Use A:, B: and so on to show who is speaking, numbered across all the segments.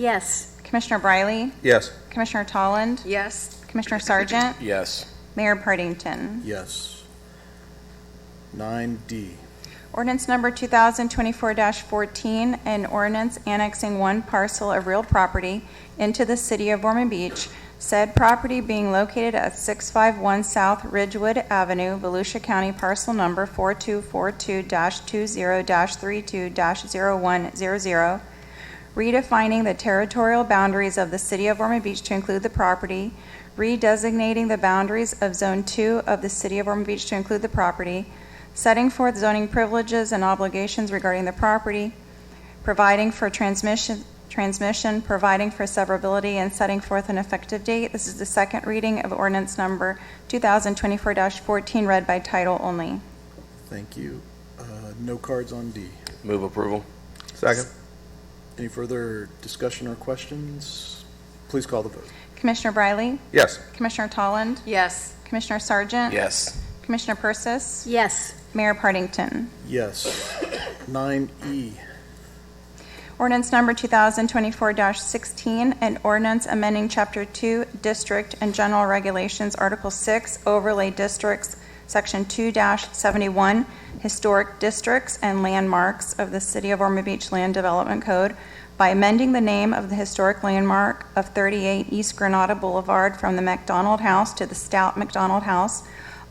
A: Yes.
B: Commissioner Briley,
C: Yes.
B: Commissioner Tolland,
A: Yes.
B: Commissioner Sargent,
C: Yes.
B: Mayor Partington.
C: Yes. Nine D.
B: Ordinance number 2024-14, an ordinance annexing one parcel of real property into the city of Ormond Beach, said property being located at 651 South Ridgewood Avenue, Volusia County, parcel number 4242-20-32-0100, redefining the territorial boundaries of the city of Ormond Beach to include the property, redesignating the boundaries of Zone 2 of the city of Ormond Beach to include the property, setting forth zoning privileges and obligations regarding the property, providing for transmission, transmission, providing for severability, and setting forth an effective date. This is the second reading of ordinance number 2024-14, read by title only.
C: Thank you. Uh, No cards on D.
D: Move approval.
E: Second.
C: Any further discussion or questions? Please call the vote.
B: Commissioner Briley?
E: Yes.
B: Commissioner Tolland?
A: Yes.
B: Commissioner Sargent?
D: Yes.
B: Commissioner Persis?
A: Yes.
B: Mayor Partington?
C: Yes. Nine E.
B: Ordinance number 2024-16, an ordinance amending Chapter 2, District and General Regulations, Article 6, Overlay Districts, Section 2-71, Historic Districts and Landmarks of the City of Ormond Beach Land Development Code by amending the name of the historic landmark of 38 East Granada Boulevard from the McDonald House to the Stout McDonald House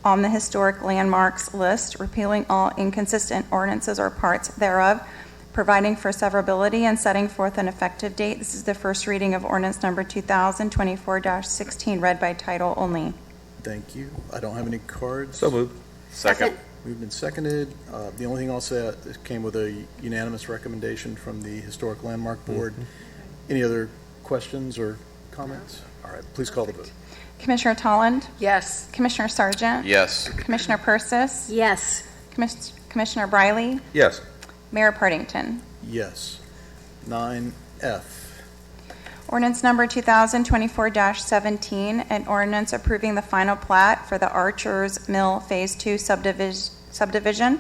B: on the historic landmarks list, repealing all inconsistent ordinances or parts thereof, providing for severability and setting forth an effective date. This is the first reading of ordinance number 2024-16, read by title only.
C: Thank you. I don't have any cards.
E: So moved.
D: Second.
C: Moved and seconded. Uh, The only thing I'll say, uh, it came with a unanimous recommendation from the Historic Landmark Board.
E: Mm-hmm.
C: Any other questions or comments? All right, please call the vote.
B: Commissioner Tolland,
A: Yes.
B: Commissioner Sargent,
D: Yes.
B: Commissioner Persis,
A: Yes.
B: Commis- Commissioner Briley,
E: Yes.
B: Mayor Partington.
C: Yes. Nine F.
B: Ordinance number 2024-17, an ordinance approving the final plat for the Archer's Mill Phase 2 subdivis- subdivision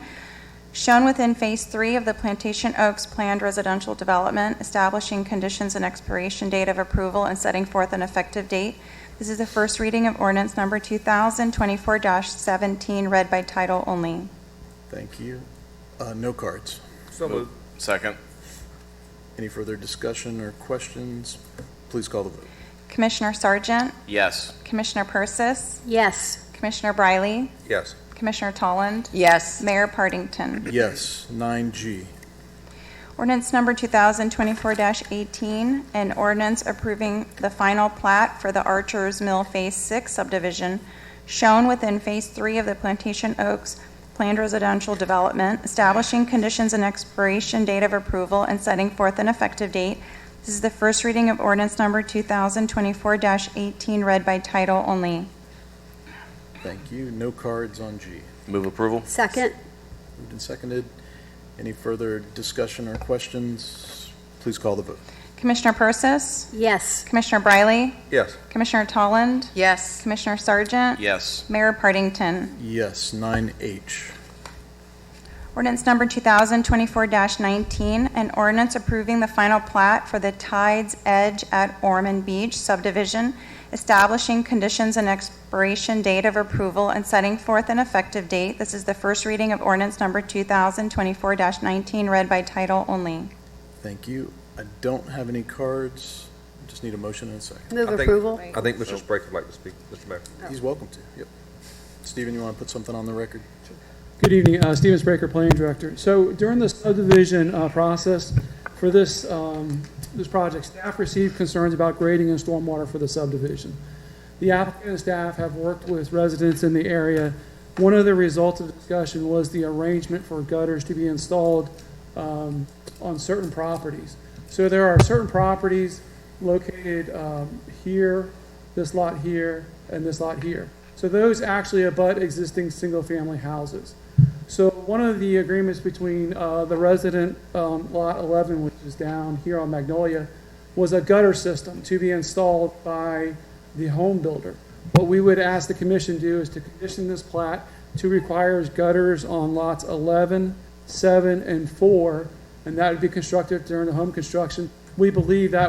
B: shown within Phase 3 of the Plantation Oaks Planned Residential Development, establishing conditions and expiration date of approval and setting forth an effective date. This is the first reading of ordinance number 2024-17, read by title only.
C: Thank you. Uh, No cards.
E: So
D: moved. Second.
C: Any further discussion or questions? Please call the vote.
B: Commissioner Sargent,
D: Yes.
B: Commissioner Persis,
A: Yes.
B: Commissioner Briley,
E: Yes.
B: Commissioner Tolland,
A: Yes.
B: Mayor Partington.
C: Yes. Nine G.
B: Ordinance number 2024-18, an ordinance approving the final plat for the Archer's Mill Phase 6 subdivision shown within Phase 3 of the Plantation Oaks Planned Residential Development, establishing conditions and expiration date of approval and setting forth an effective date. This is the first reading of ordinance number 2024-18, read by title only.
C: Thank you. No cards on G.
D: Move approval.
A: Second.
C: Moved and seconded. Any further discussion or questions? Please call the vote.
B: Commissioner Persis,
A: Yes.
B: Commissioner Briley,
E: Yes.
B: Commissioner Tolland,
A: Yes.
B: Commissioner Sargent,
D: Yes.
B: Mayor Partington.
C: Yes. Nine H.
B: Ordinance number 2024-19, an ordinance approving the final plat for the Tides Edge at Ormond Beach subdivision, establishing conditions and expiration date of approval and setting forth an effective date. This is the first reading of ordinance number 2024-19, read by title only.
C: Thank you. I don't have any cards. Just need a motion and a second.
A: Move
E: I think-
A: approval.
E: I think Mr. Spraker would like to speak, Mr. Mayor.
C: He's welcome to. Yep. Stephen, you want to put something on the record?
F: Good evening, uh, Steven Spraker, Planning Director. So during the subdivision uh, process for this, um, this project, staff received concerns about grading and stormwater for the subdivision. The applicant and staff have worked with residents in the area. One of the results of the discussion was the arrangement for gutters to be installed um, on certain properties. So there are certain properties located um, here, this lot here, and this lot here. So those actually abut existing single-family houses. So one of the agreements between uh, the resident, um, Lot 11, which is down here on Magnolia, was a gutter system to be installed by the home builder. What we would ask the commission to do is to condition this plat to require gutters on lots 11, 7, and 4, and that would be constructed during the home construction. We believe that